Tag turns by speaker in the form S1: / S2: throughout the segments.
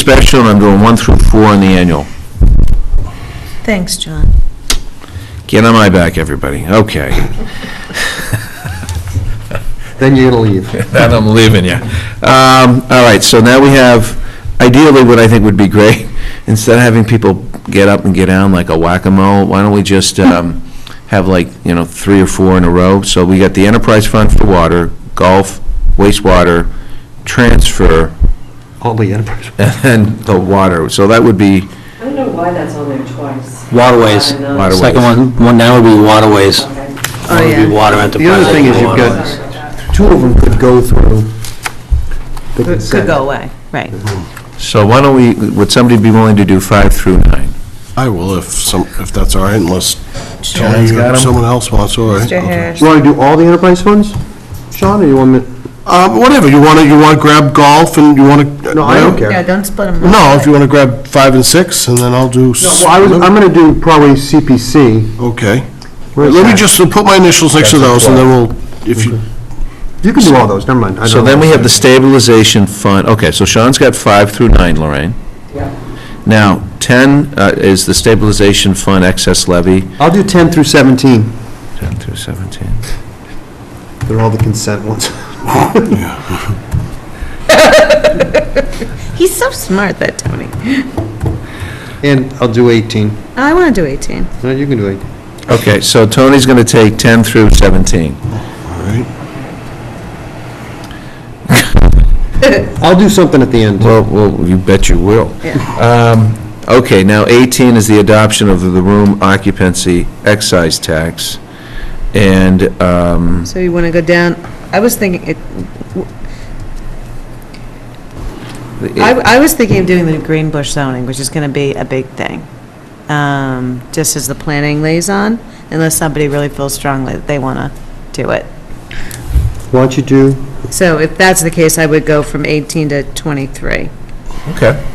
S1: special, and I'm doing one through four on the annual.
S2: Thanks, John.
S1: Get on my back, everybody. Okay.
S3: Then you're going to leave.
S1: Then I'm leaving you. Um, all right, so now we have, ideally, what I think would be great, instead of having people get up and get down like a whack-a-mole, why don't we just, um, have like, you know, three or four in a row? So we got the enterprise fund for water, golf, wastewater, transfer,
S3: All the enterprise.
S1: and the water. So that would be,
S4: I don't know why that's on there twice.
S5: Waterways.
S4: Water and, uh,
S1: Water-
S5: Second one, one now would be waterways.
S4: Okay.
S2: Oh,
S5: It would be
S2: yeah.
S5: water enterprise.
S3: The other thing is you've got, two of them could go through the
S2: Could could
S3: consent.
S2: go away, right.
S1: so why don't we, would somebody be willing to do five through nine?
S6: I will if some, if that's all right, unless Tony
S1: Tony's got
S6: or
S1: 'em.
S6: someone else wants, all right.
S2: Mr.
S6: okay.
S2: Harris,
S3: You want to do all the enterprise funds, Sean, or you want me?
S6: Um, whatever, you wanna, you wanna grab golf and you wanna.
S3: No, I don't care.
S2: yeah, don't split them up.
S6: No, if you wanna grab five and six, and then I'll do.
S3: Well, I was, I'm going to do probably CPC.
S6: Okay.
S3: Where's
S6: Let me
S3: that?
S6: just put my initials next to those, and then we'll, if you,
S3: You can do all those, never mind. I
S1: So
S3: don't-
S1: then we have the stabilization fund, okay, so Sean's got five through nine, Lorraine.
S4: Yeah.
S1: Now, 10 uh, is the stabilization fund excess levy.
S3: I'll do 10 through 17.
S1: 10 through 17.
S3: They're all the consent ones.
S2: He's so smart, that Tony.
S3: And I'll do 18.
S2: I want to do 18.
S3: No, you can do 18.
S1: Okay, so Tony's going to take 10 through 17.
S6: all right.
S3: I'll do something at the end.
S1: Well, well, you bet you will. Um, Okay, now 18 is the adoption of the room occupancy excise tax, and, um,
S2: So you want to go down, I was thinking, it. I I was thinking of doing the green bush zoning, which is going to be a big thing, um, just as the planning liaison, unless somebody really feels strongly that they want to do it.
S3: Why don't you do,
S2: So if that's the case, I would go from 18 to 23.
S1: okay.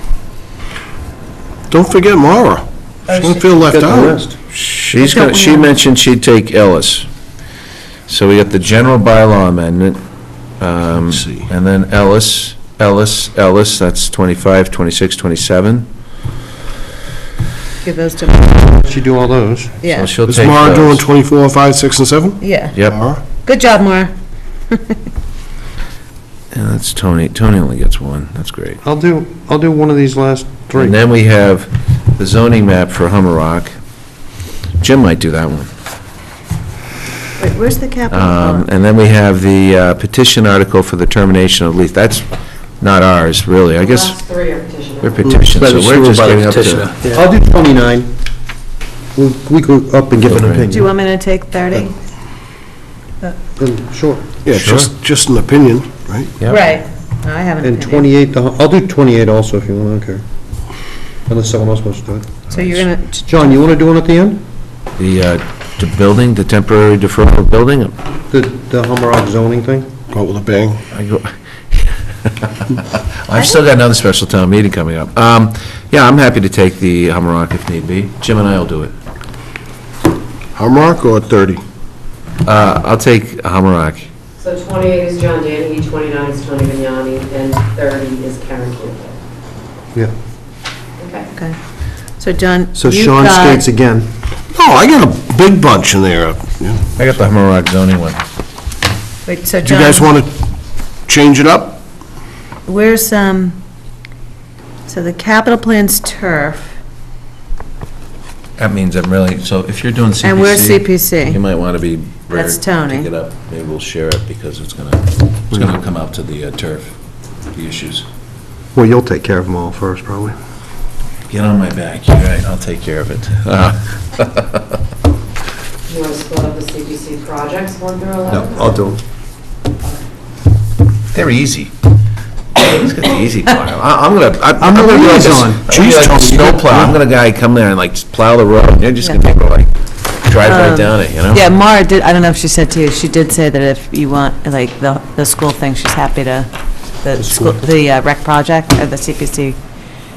S6: Don't forget Mara. She's gonna feel left
S3: get the
S6: out.
S3: rest.
S1: She's going, she mentioned she'd take Ellis. So we got the general bylaw amendment, um,
S6: Let's see.
S1: and then Ellis, Ellis, Ellis, that's 25, 26, 27.
S2: Give those to,
S3: Why don't you do all those?
S1: So
S2: yeah,
S1: she'll
S6: Is
S1: take
S6: Mara
S1: those.
S6: doing twenty-four, five, six, and seven?
S2: yeah.
S1: Yep,
S6: Mara?
S2: Good job, Maura.
S1: and that's Tony, Tony only gets one, that's great.
S3: I'll do, I'll do one of these last three.
S1: And then we have the zoning map for Hummer Rock. Jim might do that one.
S2: Wait, where's the capital?
S1: Um, And then we have the uh, petition article for the termination of lease, that's not ours, really, I guess,
S4: Last three are
S1: we're
S4: petitioners.
S1: petition, so we're just
S5: By the
S1: getting up to...
S5: petitioner.
S3: I'll do 29. We'll- We go up and give an
S1: Okay.
S2: Do you
S3: opinion.
S2: want me to take 30?
S3: And- Sure.
S6: Yeah,
S1: Sure.
S6: just, just an opinion, right?
S1: Yep.
S2: I haven't.
S3: And 28, the hu- I'll do 28 also if you want, I don't care. Unless someone else wants to do it.
S2: So you're going to,
S3: John, you want to do one at the end?
S1: The, uh, the building, the temporary deferral of building,
S3: The, the Hummerock zoning thing?
S6: Go out with a bang.
S1: I go, I've still got another special town meeting coming up. Um, Yeah, I'm happy to take the Hummerock if need be. Jim and I will do it.
S6: Hamrock or thirty?
S1: Uh, I'll take Hummerock.
S4: So 28 is John Danahy, 29 is Tony Vignani, and 30 is Karen Campbell.
S3: Yeah.
S4: Okay.
S2: okay. So John,
S3: So
S2: you've
S3: Sean
S2: got-
S3: states again.
S6: Oh, I got a big bunch in there. Yeah.
S1: I got the Hummerock zoning one.
S2: Wait, so
S6: Do you guys
S2: John,
S6: want to change it up?
S2: where's, um, so the capital plan's turf,
S1: That means I'm really, so if you're doing CPC...
S2: and we're
S1: You
S2: CPC.
S1: might want to be... very-
S2: That's Tony.
S1: Pick it up. Maybe we'll share it because it's going to, it's going to come out to the uh, turf, the issues.
S3: Well, you'll take care of them all first, probably.
S1: Get on my back, you're right, I'll take care of it. Uh,
S4: You want to split up the CPC projects, 1 through 11?
S3: I'll do them.
S1: They're easy. He's got the easy plow. I- I'm gonna, I-
S3: I'm
S1: I'm
S3: the
S1: gonna be like a
S3: liaison.
S1: Jeez, like a snowplow. I'm gonna guy come there and like just plow the road, and you're just gonna be able to like drive right down it, you know?
S2: Yeah, Mara did, I don't know if she said to you, she did say that if you want, like, the, the school thing, she's happy to, the school, the uh, rec project, or the CPC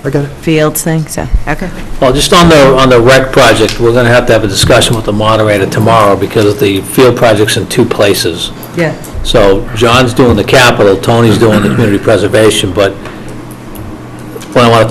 S3: I got it.
S2: fields thing, so, okay.
S5: Well, just on the, on the rec project, we're going to have to have a discussion with the moderator tomorrow because the field project's in two places.
S2: Yeah.
S5: So John's doing the capital, Tony's doing the community preservation, but what I want to